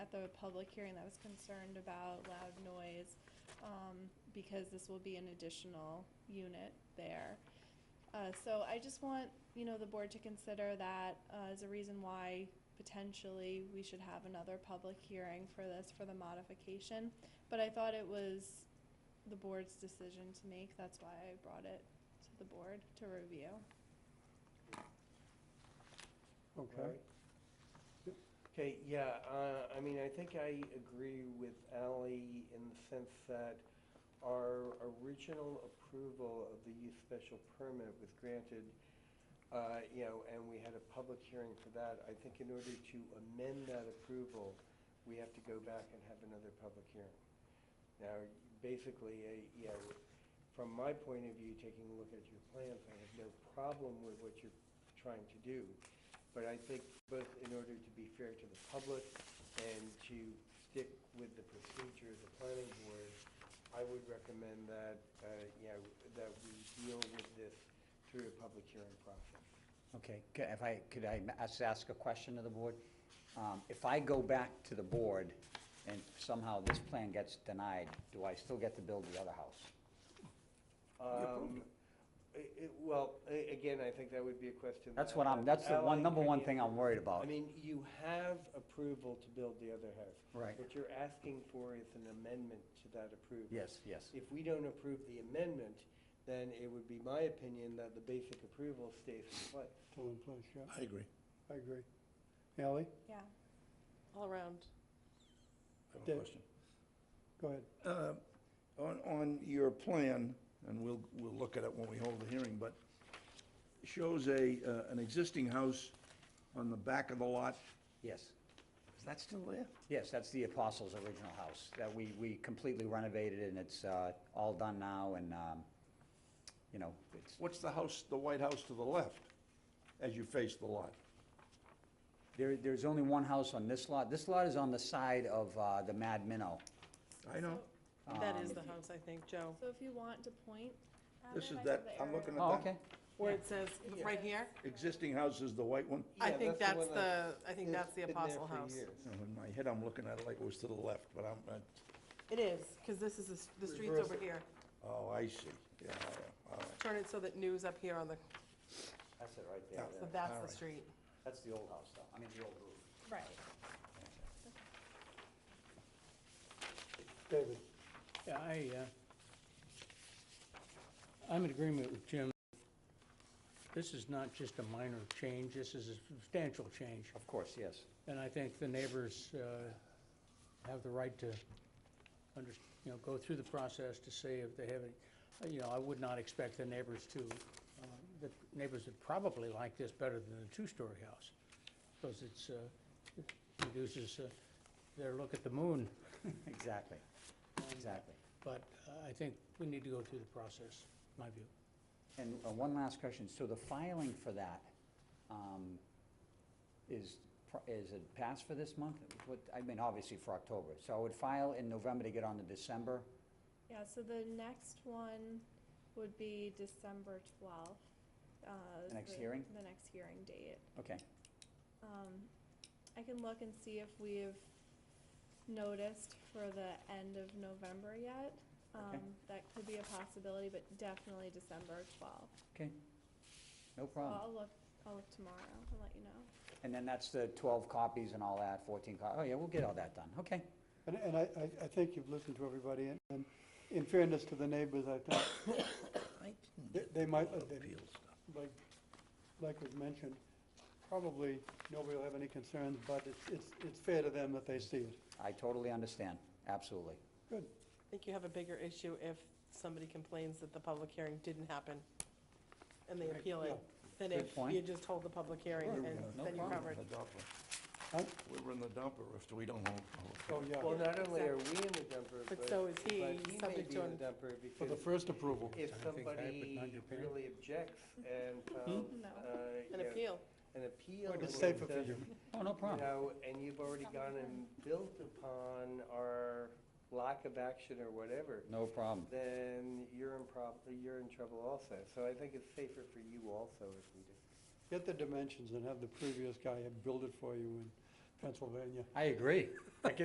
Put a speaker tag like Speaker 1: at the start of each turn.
Speaker 1: at the public hearing that was concerned about loud noise, um, because this will be an additional unit there. Uh, so I just want, you know, the board to consider that, uh, as a reason why potentially we should have another public hearing for this, for the modification. But I thought it was the board's decision to make, that's why I brought it to the board to review.
Speaker 2: Okay. Yep.
Speaker 3: Okay, yeah, uh, I mean, I think I agree with Ally in the sense that our original approval of the use special permit was granted, uh, you know, and we had a public hearing for that. I think in order to amend that approval, we have to go back and have another public hearing. Now, basically, a- you know, from my point of view, taking a look at your plans, I have no problem with what you're trying to do. But I think both in order to be fair to the public and to stick with the procedure of the planning board, I would recommend that, uh, you know, that we deal with this through a public hearing process.
Speaker 2: Okay, c- if I, could I ma- just ask a question of the board? Um, If I go back to the board and somehow this plan gets denied, do I still get to build the other house?
Speaker 3: Um, it- it- Well, a- again, I think that would be a question.
Speaker 2: That's
Speaker 3: that-
Speaker 2: what I'm, that's the one,
Speaker 3: Ally
Speaker 2: number
Speaker 3: could
Speaker 2: one
Speaker 3: answer.
Speaker 2: thing I'm worried
Speaker 3: I
Speaker 2: about.
Speaker 3: mean, you have approval to build the other house.
Speaker 2: Right.
Speaker 3: What you're asking for is an amendment to that approval.
Speaker 2: Yes, yes.
Speaker 3: If we don't approve the amendment, then it would be my opinion that the basic approval stays in place.
Speaker 4: Still in place, yeah,
Speaker 5: I agree.
Speaker 4: I agree. Ally,
Speaker 1: Yeah.
Speaker 6: All around.
Speaker 5: I have a
Speaker 4: Dave?
Speaker 5: question.
Speaker 4: go ahead.
Speaker 5: Uh, On, on your plan, and we'll, we'll look at it when we hold the hearing, but shows a, uh, an existing house on the back of the lot.
Speaker 2: Yes,
Speaker 5: Is that still there?
Speaker 2: yes, that's the Apostles' original house that we, we completely renovated and it's uh, all done now and, um, you know, it's,
Speaker 5: What's the house, the white house to the left as you face the lot?
Speaker 2: there, there's only one house on this lot. This lot is on the side of uh, the Mad Minnow.
Speaker 5: I know.
Speaker 6: That is
Speaker 2: Um,
Speaker 6: the house, I think, Joe.
Speaker 1: So if you want to point at
Speaker 5: This
Speaker 1: it,
Speaker 5: is
Speaker 1: uh, I
Speaker 5: that-
Speaker 1: have the
Speaker 5: I'm
Speaker 1: area.
Speaker 5: looking at-
Speaker 2: Oh, okay.
Speaker 6: Where it says,
Speaker 3: Yeah.
Speaker 6: right here?
Speaker 5: Existing house is the white one?
Speaker 6: I
Speaker 3: Yeah,
Speaker 6: think that's
Speaker 3: one that
Speaker 6: the, I think
Speaker 3: has
Speaker 6: that's the
Speaker 3: been there
Speaker 6: Apostle
Speaker 3: for
Speaker 6: House.
Speaker 3: years.
Speaker 5: You know, In my head, I'm looking at it like it was to the left, but I'm, uh,
Speaker 6: It is, because this is, the s- the street's
Speaker 3: Reverse
Speaker 6: over
Speaker 3: it.
Speaker 6: here.
Speaker 5: oh, I see. Yeah, all right, all right.
Speaker 6: Turn it so that new's up here on the,
Speaker 2: That's it right
Speaker 5: there,
Speaker 6: so
Speaker 5: Yeah,
Speaker 6: that's
Speaker 5: all
Speaker 6: the
Speaker 5: right.
Speaker 6: street.
Speaker 2: That's the old house, though, I mean, the old roof.
Speaker 1: Right.
Speaker 4: David,
Speaker 7: Yeah, I, uh, I'm in agreement with Jim. This is not just a minor change, this is a substantial change.
Speaker 2: Of course, yes.
Speaker 7: And I think the neighbors uh, have the right to, under- you know, go through the process to see if they have, any- you know, I would not expect the neighbors to, uh, the neighbors would probably like this better than the two-story house, because it's, uh, it reduces uh, their look at the moon.
Speaker 2: Exactly, exactly.
Speaker 7: But uh, I think we need to go through the process, my view.
Speaker 2: And uh, one last question, so the filing for that, um, is, pr- is it passed for this month? What, I mean, obviously for October, so I would file in November to get on to December,
Speaker 1: Yeah, so the next one would be December twelfth. uh,
Speaker 2: The next hearing?
Speaker 1: The next hearing date.
Speaker 2: okay.
Speaker 1: Um, I can look and see if we've noticed for the end of November yet.
Speaker 2: Okay.
Speaker 1: Um, that could be a possibility, but definitely December twelfth.
Speaker 2: No problem.
Speaker 1: I'll look, I'll look tomorrow and let you know.
Speaker 2: And then that's the twelve copies and all that, fourteen co, oh yeah, we'll get all that done, okay.
Speaker 4: and, and I, I, I think you've listened to everybody, and- and in fairness to the neighbors, I think, They- they might- uh, they-
Speaker 5: Appeal stuff.
Speaker 4: like, like was mentioned, probably nobody will have any concerns, but it's, it's, it's fair to them that they see it.
Speaker 2: I totally understand, absolutely.
Speaker 4: Good,
Speaker 6: I think you have a bigger issue if somebody complains that the public hearing didn't happen and they appeal it, than
Speaker 2: Good
Speaker 6: if
Speaker 2: point.
Speaker 6: you just hold the public hearing
Speaker 5: We're
Speaker 6: and
Speaker 5: in the-
Speaker 2: no
Speaker 6: then you're
Speaker 2: problem.
Speaker 6: covered.
Speaker 5: the dumper.
Speaker 4: Huh?
Speaker 5: We're in the dumper if we don't hold. hold it.
Speaker 4: oh,
Speaker 3: Well,
Speaker 4: yeah,
Speaker 3: not only are we in the dumper, but.
Speaker 6: But so is he,
Speaker 3: but he may
Speaker 6: subject
Speaker 3: be
Speaker 6: to
Speaker 3: in
Speaker 6: an-
Speaker 3: the dumper
Speaker 4: for the
Speaker 3: because
Speaker 4: first approval.
Speaker 3: if
Speaker 7: I think I would not
Speaker 3: somebody
Speaker 7: your parent.
Speaker 3: really objects and files,
Speaker 1: No.
Speaker 3: uh, you
Speaker 6: Mm-hmm. An
Speaker 3: know,
Speaker 6: appeal.
Speaker 3: an appeal.
Speaker 4: It's
Speaker 3: or
Speaker 4: safer for
Speaker 3: something,
Speaker 4: you.
Speaker 2: Oh, no
Speaker 3: You
Speaker 2: problem.
Speaker 3: know, and you've already gone and built upon our lack of action or whatever,
Speaker 2: No problem.
Speaker 3: then you're in prob, you're in trouble also. So I think it's safer for you also if we do.
Speaker 4: Get the dimensions and have the previous guy build it for you in Pennsylvania.
Speaker 2: I agree.